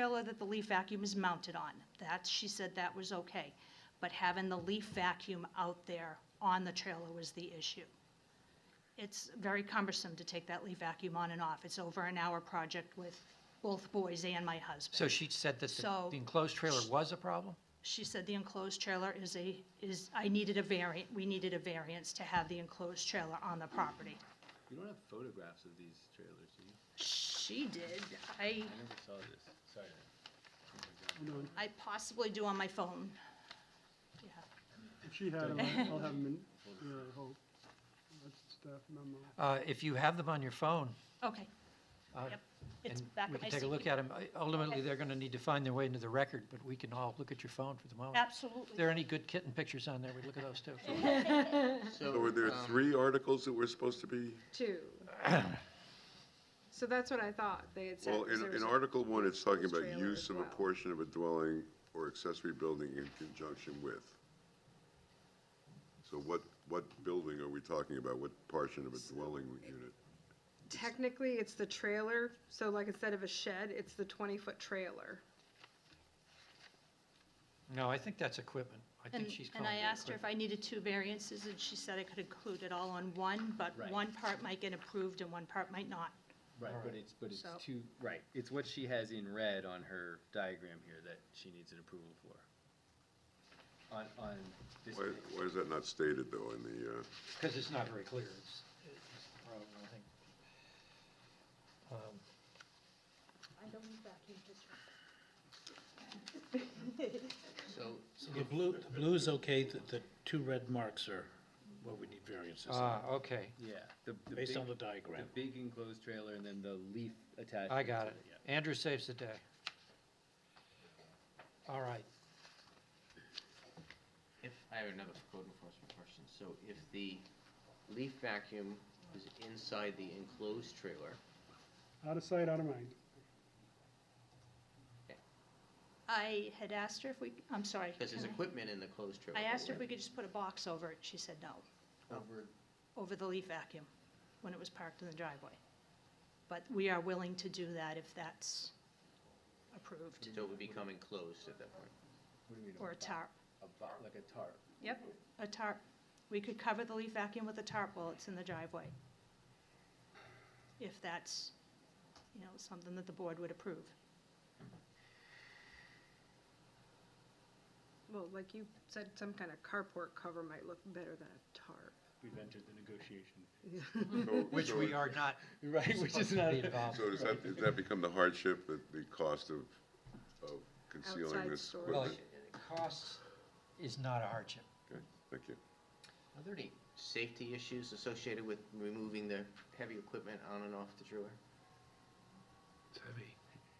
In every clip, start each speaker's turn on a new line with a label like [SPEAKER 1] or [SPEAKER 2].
[SPEAKER 1] trailer that the leaf vacuum is mounted on. That, she said that was okay. But having the leaf vacuum out there on the trailer was the issue. It's very cumbersome to take that leaf vacuum on and off. It's over an hour project with both boys and my husband.
[SPEAKER 2] So she said that the-
[SPEAKER 1] So-
[SPEAKER 2] the enclosed trailer was a problem?
[SPEAKER 1] She said the enclosed trailer is a, is, I needed a variant, we needed a variance to have the enclosed trailer on the property.
[SPEAKER 3] You don't have photographs of these trailers, do you?
[SPEAKER 1] She did. I,
[SPEAKER 3] I never saw this, sorry.
[SPEAKER 1] I possibly do on my phone. Yeah.
[SPEAKER 4] If she had them, I'll have them in, yeah, I hope. That's staff memo.
[SPEAKER 2] Uh, If you have them on your phone,
[SPEAKER 1] Okay,
[SPEAKER 2] uh,
[SPEAKER 1] Yep. it's
[SPEAKER 2] And
[SPEAKER 1] back
[SPEAKER 2] we
[SPEAKER 1] at my
[SPEAKER 2] can take a
[SPEAKER 1] seat.
[SPEAKER 2] look at them. Ultimately,
[SPEAKER 1] Okay.
[SPEAKER 2] they're going to need to find their way into the record, but we can all look at your phone for the moment. If
[SPEAKER 1] Absolutely.
[SPEAKER 2] there are any good kitten pictures on there, we look at those too.
[SPEAKER 5] So were there
[SPEAKER 6] Um,
[SPEAKER 5] three articles that were supposed to be,
[SPEAKER 6] Two. So that's what I thought they had said.
[SPEAKER 5] well,
[SPEAKER 6] was
[SPEAKER 5] in,
[SPEAKER 6] there was
[SPEAKER 5] in
[SPEAKER 6] a-
[SPEAKER 5] Article One, it's talking about
[SPEAKER 6] Trailer
[SPEAKER 5] use
[SPEAKER 6] as
[SPEAKER 5] of a
[SPEAKER 6] well.
[SPEAKER 5] portion of a dwelling or accessory building in conjunction with. So what, what building are we talking about? What portion of a dwelling unit?
[SPEAKER 6] Technically, it's the trailer, so like instead of a shed, it's the twenty-foot trailer.
[SPEAKER 2] No, I think that's equipment. I
[SPEAKER 1] And,
[SPEAKER 2] think she's
[SPEAKER 1] and
[SPEAKER 2] calling
[SPEAKER 1] I
[SPEAKER 2] it
[SPEAKER 1] asked her if
[SPEAKER 2] equipment.
[SPEAKER 1] I needed two variances, and she said I could include it all on one, but
[SPEAKER 3] Right.
[SPEAKER 1] one part might get approved and one part might not.
[SPEAKER 3] Right, but it's, but it's
[SPEAKER 1] So-
[SPEAKER 3] too, right, it's what she has in red on her diagram here that she needs an approval for. On, on this
[SPEAKER 5] Why,
[SPEAKER 3] page.
[SPEAKER 5] why is that not stated though in the, uh,
[SPEAKER 2] Because it's not very clear. It's- it's the problem, I think. Um,
[SPEAKER 7] The blue, the blue is okay, the, the two red marks are what we need variances on,
[SPEAKER 2] Ah, okay.
[SPEAKER 3] Yeah, the, the big,
[SPEAKER 7] based on the
[SPEAKER 3] the
[SPEAKER 7] diagram.
[SPEAKER 3] big enclosed trailer and then the leaf attached.
[SPEAKER 2] I got
[SPEAKER 3] to
[SPEAKER 2] it. Andrew saves the day. All right.
[SPEAKER 8] If, I have another code enforcement question. So if the leaf vacuum is inside the enclosed trailer,
[SPEAKER 4] Out of sight, out of mind.
[SPEAKER 1] I had asked her if we, I'm sorry.
[SPEAKER 8] because there's
[SPEAKER 1] can I-
[SPEAKER 8] equipment in the closed trailer.
[SPEAKER 1] Mm-hmm. I asked her if we could just put a box over it, she said no,
[SPEAKER 8] Over
[SPEAKER 1] over the leaf vacuum, when it was parked in the driveway. But we are willing to do that if that's approved,
[SPEAKER 8] So it would become enclosed at that point.
[SPEAKER 3] What do you mean,
[SPEAKER 1] or a tarp.
[SPEAKER 3] a bo- like a tarp?
[SPEAKER 1] Yep, a tarp. We could cover the leaf vacuum with a tarp while it's in the driveway. If that's, you know, something that the board would approve.
[SPEAKER 6] Well, like you said, some kind of carport cover might look better than a tarp.
[SPEAKER 7] We've entered the negotiation.
[SPEAKER 5] so-
[SPEAKER 2] Which
[SPEAKER 5] so
[SPEAKER 2] we
[SPEAKER 5] it-
[SPEAKER 2] are not
[SPEAKER 7] Right, which
[SPEAKER 2] supposed
[SPEAKER 7] is
[SPEAKER 2] to
[SPEAKER 7] not,
[SPEAKER 2] be involved.
[SPEAKER 5] So does that, does that become the hardship, the, the cost of, of concealing
[SPEAKER 6] Outside
[SPEAKER 5] this
[SPEAKER 6] storage.
[SPEAKER 2] Well,
[SPEAKER 5] equipment?
[SPEAKER 2] cost is not a hardship.
[SPEAKER 5] Okay, thank you.
[SPEAKER 8] Are there any safety issues associated with removing the heavy equipment on and off the trailer?
[SPEAKER 7] it's heavy,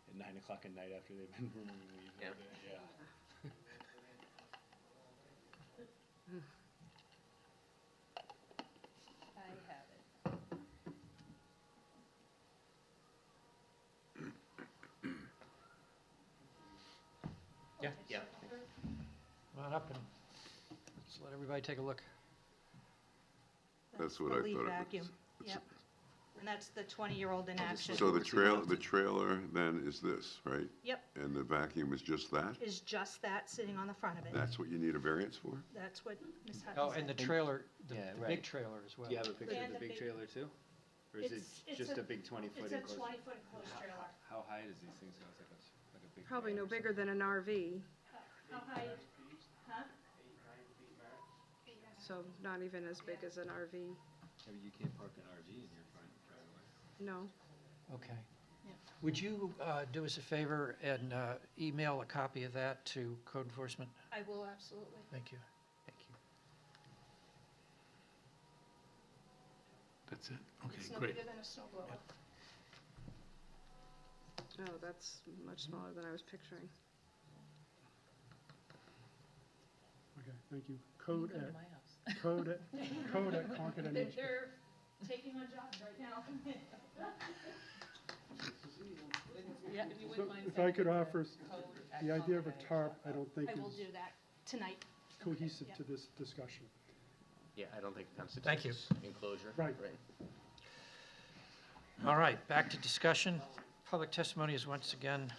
[SPEAKER 7] at nine o'clock at night after they've been removing leaves
[SPEAKER 8] Yeah.
[SPEAKER 7] all day, yeah.
[SPEAKER 1] I have it.
[SPEAKER 8] Yeah.
[SPEAKER 2] Come on up and let's let everybody take a look.
[SPEAKER 5] That's what I
[SPEAKER 1] The
[SPEAKER 5] thought
[SPEAKER 1] leaf
[SPEAKER 5] it was.
[SPEAKER 1] vacuum, yep. And that's the twenty-year-old in action.
[SPEAKER 5] So the trail, the trailer then is this, right?
[SPEAKER 1] Yep,
[SPEAKER 5] And the vacuum is just that?
[SPEAKER 1] is just that sitting on the front of it.
[SPEAKER 5] That's what you need a variance for?
[SPEAKER 1] That's what Ms. Hutton
[SPEAKER 2] Oh,
[SPEAKER 1] said.
[SPEAKER 2] and the trailer, the
[SPEAKER 3] Yeah,
[SPEAKER 2] the big
[SPEAKER 3] right.
[SPEAKER 2] trailer as well.
[SPEAKER 3] Do you have a picture
[SPEAKER 1] And
[SPEAKER 3] of
[SPEAKER 1] a
[SPEAKER 3] the
[SPEAKER 1] big-
[SPEAKER 3] big trailer too? Or is it
[SPEAKER 1] It's- it's
[SPEAKER 3] just
[SPEAKER 1] a-
[SPEAKER 3] a big twenty-foot
[SPEAKER 1] It's a
[SPEAKER 3] enclosed?
[SPEAKER 1] twenty-foot enclosed trailer.
[SPEAKER 3] How high does these things go? It's like a, like a big.
[SPEAKER 6] Probably
[SPEAKER 3] van
[SPEAKER 6] no
[SPEAKER 3] or something.
[SPEAKER 6] bigger than an RV,
[SPEAKER 1] How high, huh?
[SPEAKER 6] so not even as big as an RV,
[SPEAKER 3] I mean, you can't park an RV in your front driveway.
[SPEAKER 6] no.
[SPEAKER 2] Okay.
[SPEAKER 1] Yeah.
[SPEAKER 2] Would you uh, do us a favor and uh, email a copy of that to code enforcement?
[SPEAKER 1] I will uh, absolutely.
[SPEAKER 2] Thank you.
[SPEAKER 8] Thank you.
[SPEAKER 1] It's
[SPEAKER 7] That's it, okay,
[SPEAKER 1] no
[SPEAKER 7] great.
[SPEAKER 1] bigger than a snow blower.
[SPEAKER 6] Oh, that's much smaller than I was picturing.
[SPEAKER 4] Okay, thank you. Code at, code at, code at Concord NH.
[SPEAKER 1] They're taking on jobs right now.
[SPEAKER 4] So If I could offer, s- the idea of a tarp, I don't think
[SPEAKER 1] I will
[SPEAKER 4] is
[SPEAKER 1] do that tonight.
[SPEAKER 4] cohesive
[SPEAKER 1] Yeah.
[SPEAKER 4] to this discussion.
[SPEAKER 8] Yeah, I don't think it constitutes.
[SPEAKER 2] Thank you.
[SPEAKER 8] Enclosure.
[SPEAKER 4] Right.
[SPEAKER 2] All right, back to discussion. Public testimony is once again